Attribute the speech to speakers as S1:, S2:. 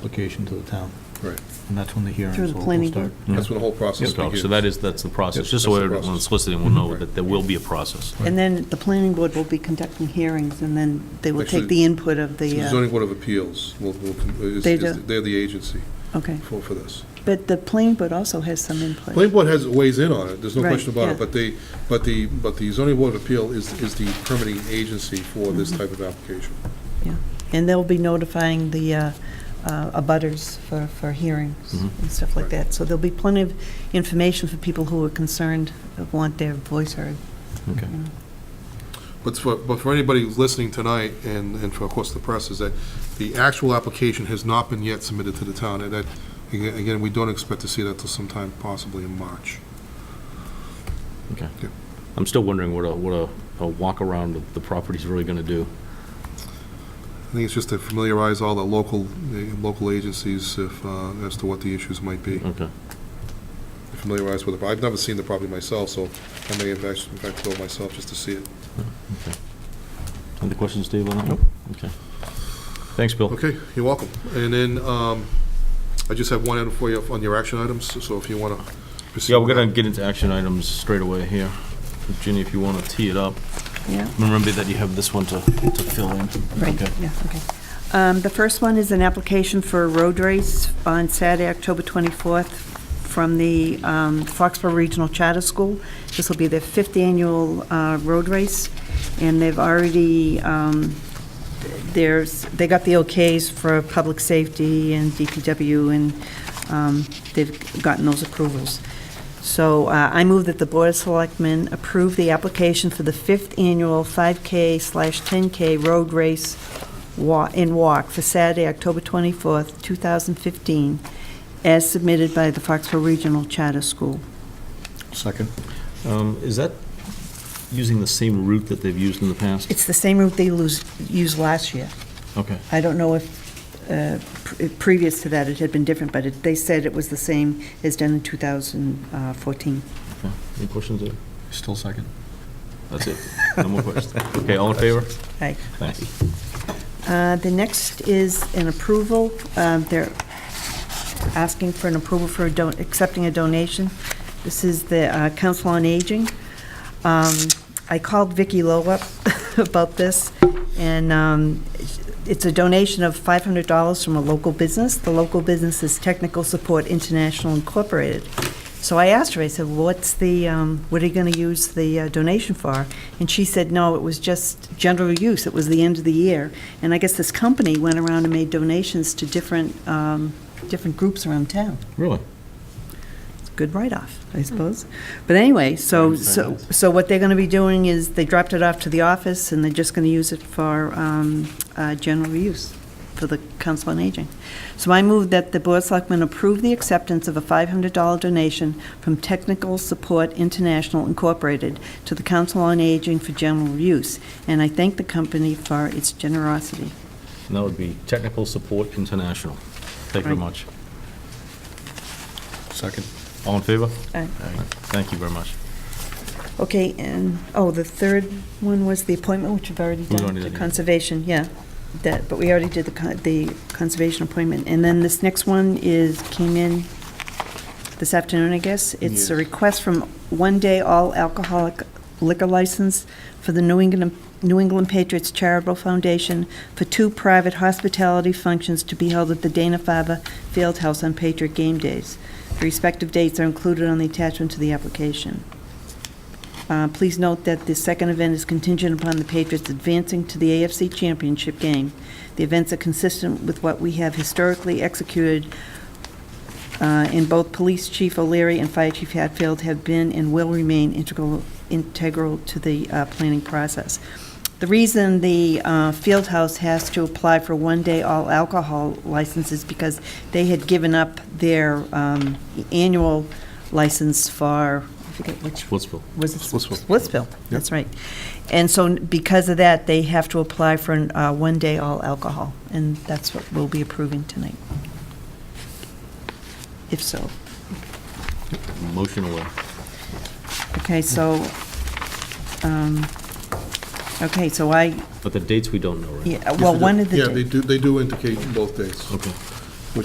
S1: application to the town,
S2: Right,
S1: and that's when the hearings
S3: Through
S1: will
S3: the
S1: will
S3: planning
S1: start.
S2: that's when the whole process
S4: So
S2: begins.
S4: so that is, that's the process,
S2: Yes,
S4: just so
S2: that's the
S4: everyone
S2: process.
S4: soliciting will know
S2: Mhm.
S4: that there will be a process.
S3: And then the planning board will be conducting hearings, and then they will
S2: Actually,
S3: take the input of
S2: So
S3: the,
S2: The
S3: uh,
S2: zoning board of appeals will, will, is-
S3: They
S2: is-
S3: do.
S2: they're the agency
S3: okay.
S2: for, for this.
S3: But the planning board also has some
S2: Planning
S3: input.
S2: board has, weighs in on it, there's no
S3: Right,
S2: question about
S3: yeah.
S2: it, but they, but the, but the zoning board of appeal is, is the permitting agency for
S3: Mm-hmm.
S2: this type of application.
S3: And they'll be notifying the uh, uh, abutters for, for hearings
S4: Mhm.
S2: Mm-hmm.
S3: and stuff like that. So there'll be plenty of information for people who are concerned, that want their voice heard.
S4: Okay.
S3: you know.
S2: But for, but for anybody who's listening tonight, and, and for, of course, the press, is that the actual application has not been yet submitted to the town, and that, aga- again, we don't expect to see that till sometime possibly in March.
S4: Okay.
S2: Yeah.
S4: I'm still wondering what a, what a, a walk around of the property's really going to do.
S2: I think it's just to familiarize all the local, the local agencies if, uh, as to what the issues might be,
S4: Okay.
S2: familiarize with it. But I've never seen the property myself, so I may have actually, in fact, go myself just to see it.
S4: Any questions, Steve, on that one? Okay. Thanks, Bill.
S2: Okay, you're welcome. And then, um, I just have one item for you on your action items, so if you want to proceed.
S4: Yeah, we're going
S2: with
S4: to get into action items straight away here. Ginny, if you want to tee it up.
S3: Yeah.
S4: Remember that you have this one to, to fill in.
S3: Right,
S4: Okay.
S3: yeah, okay. Um, The first one is an application for a road race on Saturday, October 24th, from the um, Foxborough Regional Charter School. This will be their fifth annual uh, road race, and they've already, um, there's, they got the okays for public safety and DPW, and um, they've gotten those approvals. So uh, I move that the Board of Selectmen approve the application for the fifth annual 5K slash 10K road race wa- and walk for Saturday, October 24th, 2015, as submitted by the Foxborough Regional Charter School.
S1: Second.
S4: Um, Is that using the same route that they've used in the past?
S3: It's the same route they lose- used last year.
S4: Okay.
S3: I don't know if, uh, pre- previous to that, it had been different, but it- they said it was the same as done in 2014.
S4: Okay. Any questions there?
S1: Still second.
S4: That's it. No more questions. Okay, all in favor?
S3: Aye.
S4: Thanks.
S3: Uh, The next is an approval. Um, They're asking for an approval for a don- accepting a donation. This is the uh, Council on Aging. Um, I called Vicky Lowe up about this, and um, it's a donation of $500 from a local business. The local business is Technical Support International Incorporated. So I asked her, I said, what's the, um, what are you going to use the uh, donation for? And she said, no, it was just general use, it was the end of the year. And I guess this company went around and made donations to different, um, different groups around town.
S4: Really?
S3: It's a good write-off, I suppose. But anyway, so, so, so what they're going to be doing is, they dropped it off to the office, and they're just going to use it for um, uh, general use for the Council on Aging. So I move that the Board of Selectmen approve the acceptance of a $500 donation from Technical Support International Incorporated to the Council on Aging for general use, and I thank the company for its generosity.
S4: And that would be Technical Support International. Thank you very
S3: Right.
S4: much.
S1: Second.
S4: All in favor?
S3: Aye.
S4: Thank you very much.
S3: Okay, and, oh, the third one was the appointment, which we've already
S4: We've
S3: done,
S4: already
S3: the
S4: done it.
S3: conservation, yeah. That, but we already did the, con- the conservation appointment. And then this next one is, came in this afternoon, I guess. It's a
S2: Yes.
S3: request from One Day All Alcoholic Liquor License for the New England, New England Patriots Charitable Foundation for two private hospitality functions to be held at the Dana-Farber Field House on Patriot Game Days. The respective dates are included on the attachment to the application. Uh, Please note that the second event is contingent upon the Patriots advancing to the AFC Championship game. The events are consistent with what we have historically executed, uh, and both Police Chief O'Leary and Fire Chief Hatfield have been and will remain integral, integral to the uh, planning process. The reason the uh, Field House has to apply for one-day all-alcohol license is because they had given up their um, annual license for, I forget which
S4: Splitsville.
S3: was it
S2: Splitsville.
S3: Splitsville? That's right. And so n- because of that, they have to apply for an, uh, one-day all alcohol, and that's what we'll be approving tonight. If so.
S4: Motion away.
S3: Okay, so, um, okay, so I,
S4: But the dates we don't know, right?
S3: yeah, well, one of the,
S2: Yeah, they
S3: da-
S2: do, they do indicate both days.
S4: Okay.